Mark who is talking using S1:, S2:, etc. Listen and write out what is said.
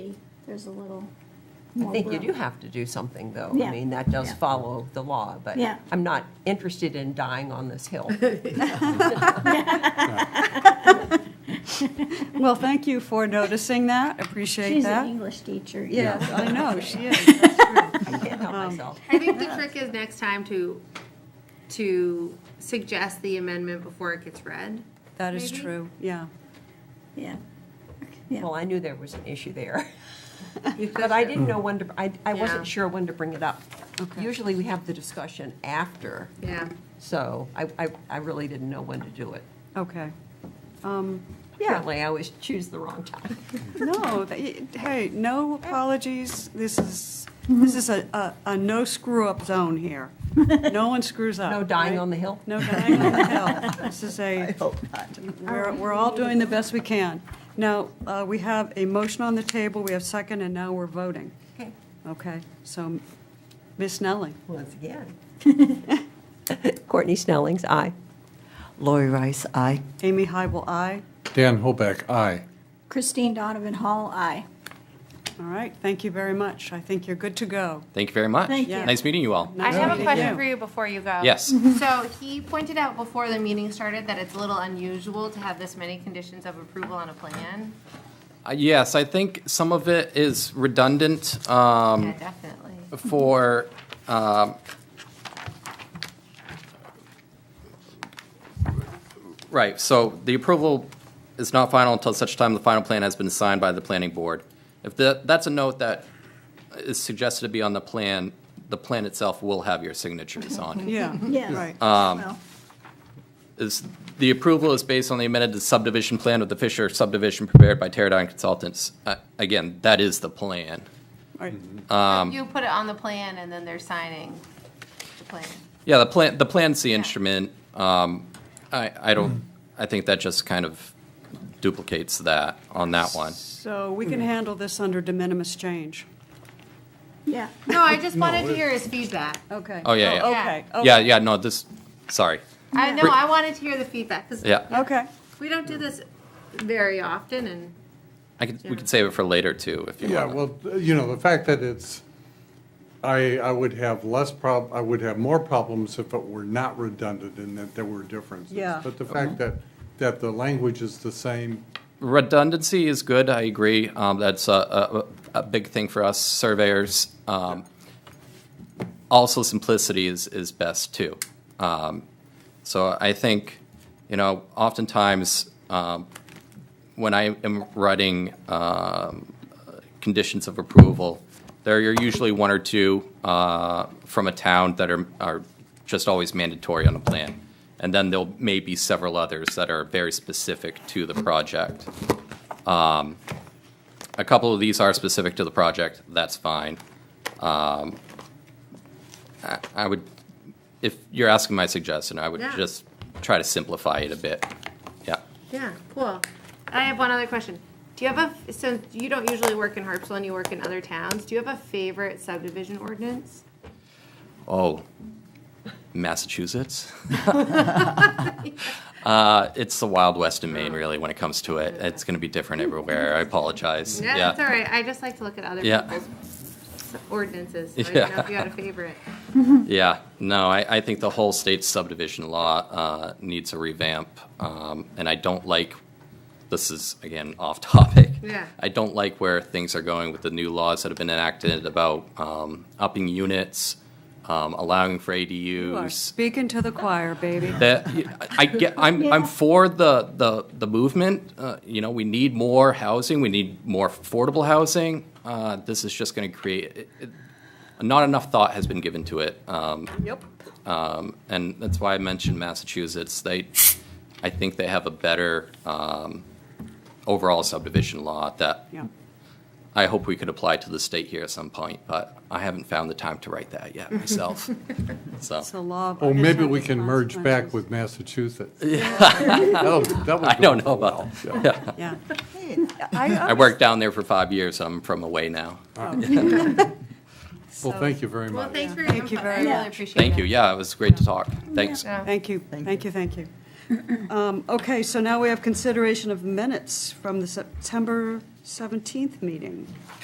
S1: there's a little
S2: I
S1: more
S2: think you
S1: room.
S2: do have to do something, though. I
S1: Yeah.
S2: mean, that does
S1: Yeah.
S2: follow the law, but
S1: Yeah.
S2: I'm not interested in dying on this hill.
S3: Well, thank you for noticing that, appreciate
S1: She's an
S3: that.
S1: English teacher. you
S3: Yes,
S1: know.
S3: I know, she is.
S2: I can't
S1: Um,
S2: help myself.
S4: I think the trick is next time to, to suggest the amendment before it gets read.
S3: That is
S4: Maybe.
S3: true, yeah.
S1: Yeah. Yeah.
S2: Well, I knew there was an issue there. But I didn't know when to, I, I
S4: Yeah.
S2: wasn't sure when to bring it up.
S3: Okay.
S2: Usually we have the discussion after,
S4: Yeah.
S2: so I, I, I really didn't know when to do it.
S3: Okay. Um, Yeah,
S2: Apparently, I always choose the wrong time.
S3: no, th- hey, no apologies, this is, this is a, a, a no screw-up zone here. No one screws up.
S2: No dying
S3: right?
S2: on the hill?
S3: No dying on the hill. This is a,
S2: hope not.
S3: we're, we're all doing the best we can. Now, uh, we have a motion on the table, we have second, and now we're voting.
S2: Okay,
S3: Okay, so Ms. Nellie?
S2: once again. Courtney Snelling's aye.
S5: Lori Rice, aye.
S3: Amy Hybel, aye.
S6: Dan Hoback, aye.
S1: Christine Donovan Hall, aye.
S3: All right, thank you very much. I think you're good to go.
S7: Thank you very much.
S1: Thank you.
S7: Nice meeting you all.
S3: Nice
S4: I have
S3: meeting
S4: a
S3: you.
S4: question for
S8: you before you go.
S7: Yes.
S4: So he pointed out before the meeting started that it's a little unusual to have this many conditions of approval on a plan.
S7: Uh, Yes, I think some of it is redundant um,
S4: Yeah, definitely.
S7: for, um, right, so the approval is not final until such time the final plan has been signed by the planning board. If the, that's a note that is suggested to be on the plan, the plan itself will have your signatures on it.
S3: Yeah,
S1: Yes.
S3: right.
S1: Well,
S7: is, the approval is based on the amended subdivision plan of the Fisher subdivision prepared by Teradyne Consultants. Uh, Again, that is the plan.
S3: All right.
S7: um,
S4: You put it on the plan and then they're signing the plan.
S7: Yeah, the plan, the plan's the instrument. Um, I, I don't, I think that just kind of duplicates that on that one.
S3: So we can
S7: Mm-hmm.
S3: handle this under de minimis change.
S1: Yeah.
S4: No, I just wanted to hear his feedback.
S3: Okay.
S7: Oh, yeah, yeah.
S3: Okay,
S7: Yeah,
S3: okay.
S7: yeah, no, this, sorry.
S4: I know, I wanted to hear the feedback because
S7: Yeah,
S3: Okay,
S4: we don't do this very often and.
S7: I could, we could save it for later too, if you
S6: Yeah,
S7: want.
S6: well, you know, the fact that it's, I, I would have less prob, I would have more problems if it were not redundant and that there were differences.
S3: Yeah.
S6: But the fact that, that the language is the same,
S7: Redundancy is good, I agree. Um, That's a, a, a big thing for us surveyors. Um, Also, simplicity is, is best, too. Um, So I think, you know, oftentimes, um, when I am writing um, conditions of approval, there are usually one or two uh, from a town that are, are just always mandatory on a plan. And then there'll maybe several others that are very specific to the project. Um, A couple of these are specific to the project, that's fine. Um, I I would, if you're asking my suggestion, I would
S4: Yeah.
S7: just try to simplify it a bit. Yeah.
S4: Yeah, cool. I have one other question. Do you have a, since you don't usually work in Harpswell and you work in other towns, do you have a favorite subdivision ordinance?
S7: Oh, Massachusetts? uh, it's the Wild West in
S4: Oh.
S7: Maine, really, when it comes to it. It's going to be different everywhere. I apologize.
S4: Yeah, that's all right. I just like to look at other
S7: Yeah.
S4: people's ordinances. So I didn't know if you had a favorite.
S7: Yeah. No, I, I think the whole state subdivision law uh, needs a revamp. Um, and I don't like, this is, again, off topic.
S4: Yeah.
S7: I don't like where things are going with the new laws that have been enacted about um, upping units, um, allowing for ADUs.
S3: you are speaking to the choir, baby.
S7: That I get, I'm I'm for the the the movement. Uh, you know, we need more housing. We need more affordable housing. Uh, this is just going to create. It, it, not enough thought has been given to it, um,
S3: Yep.
S7: um, and that's why I mentioned Massachusetts. They, I think they have a better um, overall subdivision law that
S3: Yeah,
S7: I hope we could apply to the state here at some point. But I haven't found the time to write that yet myself. so
S3: it's a law of.
S6: oh, maybe we
S3: unintended
S6: can merge back
S3: consequences.
S6: with Massachusetts. That'll- that would
S7: I
S6: go
S7: don't know
S6: well.
S7: about.
S3: Yeah.
S7: I worked down there for five years. I'm from away now.
S6: Well, thank you very much.
S4: Well, thanks for your
S3: Thank you
S4: input. I
S3: very
S4: really
S3: much.
S4: appreciate it.
S7: Thank you. Yeah, it was great to talk. Thanks.
S4: Yeah.
S3: Thank you, thank you, thank you. Um, Okay, so now we have consideration of minutes from the September 17th meeting.